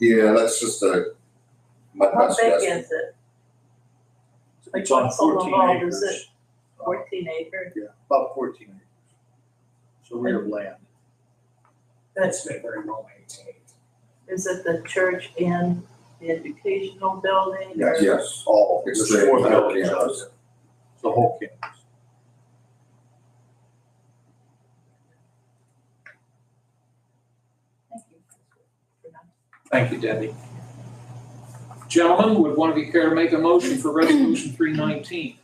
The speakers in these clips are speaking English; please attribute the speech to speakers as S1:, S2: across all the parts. S1: Yeah, that's just a, my
S2: How
S1: best
S2: big
S1: guess.
S2: is it?
S3: It's on
S2: Like, what's
S3: fourteen
S2: involved, is
S3: acres,
S2: Fourteen acre?
S3: about fourteen acres. So we have land.
S4: That's been very well maintained.
S2: Is it the church and the educational building? or-
S1: Yes, yes.
S3: All,
S1: It's
S3: there's
S1: the
S3: four
S1: entire
S3: buildings out
S1: campus.
S3: there, the whole campus.
S2: Thank you. For that.
S4: Thank you, Debbie. Gentlemen, would one of you care to make a motion for resolution three nineteen?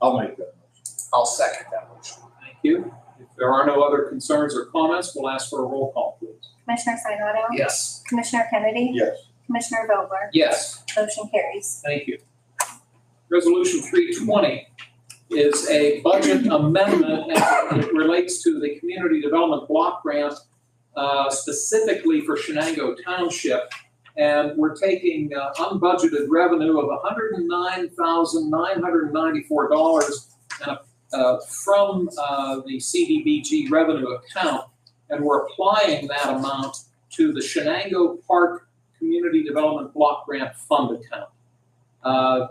S3: I'll make that motion.
S4: I'll second that motion. Thank you. If there are no other concerns or comments, we'll ask for a roll call, please.
S5: Commissioner Sinata?
S4: Yes.
S5: Commissioner Kennedy?
S3: Yes.
S5: Commissioner Vogler?
S4: Yes.
S5: Motion carries.
S4: Thank you. Resolution three twenty is a budget amendment as it relates to the community development block grant uh, specifically for Shenango Township. And we're taking uh, unbudgeted revenue of hundred and nine thousand nine hundred and ninety-four dollars from uh, the CDBG revenue account, and we're applying that amount to the Shenango Park Community Development Block Grant Fund account. Uh,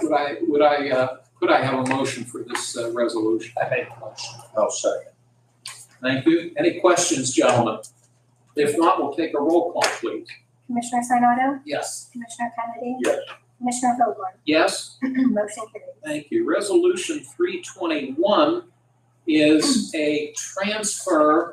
S4: Would I, would I, uh, could I have a motion for this uh, resolution? I make a motion.
S3: I'll second.
S4: Thank you. Any questions, gentlemen? If not, we'll take a roll call, please.
S5: Commissioner Sinata?
S4: Yes.
S5: Commissioner Kennedy?
S3: Yes.
S5: Commissioner Vogler?
S4: Yes?
S5: Motion carries.
S4: Thank you. Resolution three twenty-one is a transfer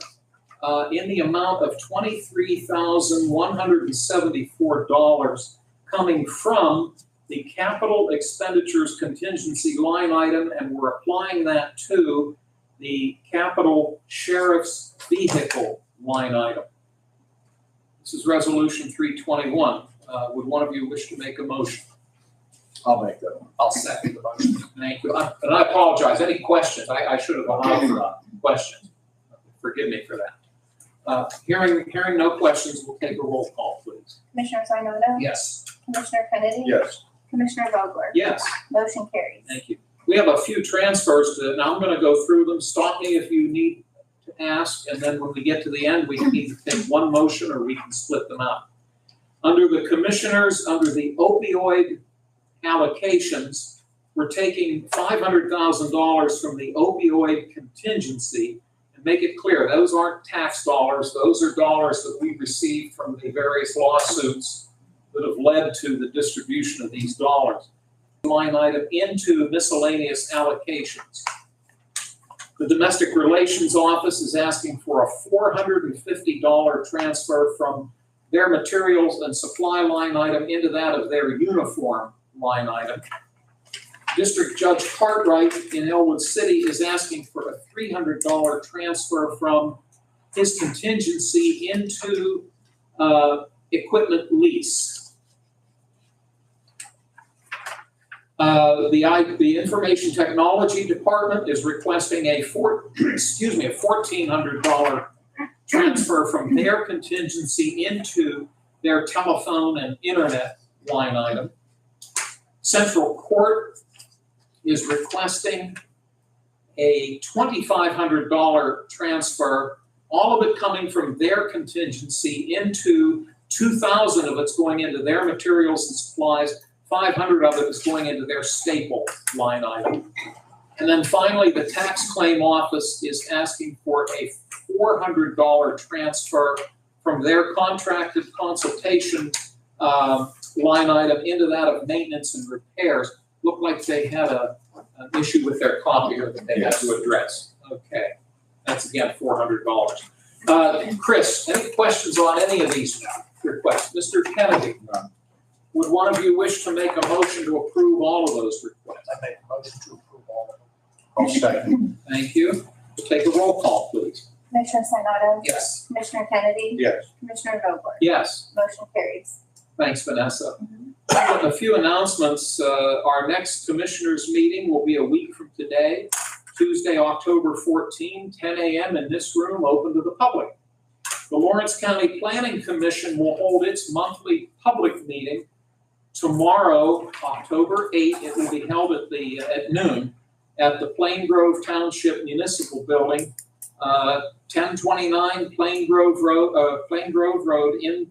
S4: uh, in the amount of twenty-three thousand one hundred and seventy-four dollars coming from the capital expenditures contingency line item, and we're applying that to the capital sheriff's vehicle line item. This is resolution three twenty-one. Uh, Would one of you wish to make a motion?
S3: I'll make that one.
S4: I'll second the motion. Thank you. I- And I apologize. Any questions? I, I should have allowed for uh, questions. Forgive me for that. Uh, Hearing, hearing no questions, we'll take a roll call, please.
S5: Commissioner Sinata?
S4: Yes.
S5: Commissioner Kennedy?
S3: Yes.
S5: Commissioner Vogler?
S4: Yes.
S5: Motion carries.
S4: Thank you. We have a few transfers to, and I'm gonna go through them. Stop me if you need to ask, and then when we get to the end, we can either take one motion or we can split them up. Under the commissioners, under the opioid allocations, we're taking five hundred thousand dollars from the opioid contingency. And make it clear, those aren't tax dollars, those are dollars that we received from the various lawsuits that have led to the distribution of these dollars line item into miscellaneous allocations. The Domestic Relations Office is asking for a four hundred and fifty dollar transfer from their materials and supply line item into that of their uniform line item. District Judge Cartwright in Elwood City is asking for a three hundred dollar transfer from his contingency into, uh, equipment lease. Uh, the I, the Information Technology Department is requesting a four, excuse me, a fourteen hundred dollar transfer from their contingency into their telephone and internet line item. Central Court is requesting a twenty-five hundred dollar transfer, all of it coming from their contingency into two thousand dollars of it's going into their materials and supplies, five hundred of it is going into their staple line item. And then finally, the tax claim office is asking for a four hundred dollar transfer from their contracted consultation um, line item into that of maintenance and repairs. Looked like they had a, an issue with their copier that they had to address. Okay, that's again, four hundred dollars. Uh, Chris, any questions on any of these requests? Mr. Kennedy? Would one of you wish to make a motion to approve all of those requests?
S3: I make a motion to approve all of them. I'll second.
S4: Thank you. We'll Take a roll call, please.
S5: Commissioner Sinata?
S4: Yes.
S5: Commissioner Kennedy?
S3: Yes.
S5: Commissioner Vogler?
S4: Yes.
S5: Motion carries.
S4: Thanks, Vanessa. A few announcements. Uh, Our next commissioners' meeting will be a week from today, Tuesday, October 14, 10 a.m. in this room, open to the public. The Lawrence County Planning Commission will hold its monthly public meeting tomorrow, October 8. It will be held at the, uh, at noon, at the Plain Grove Township Municipal Building, uh, 1029 Plain Grove Road, uh, Plain Grove Road in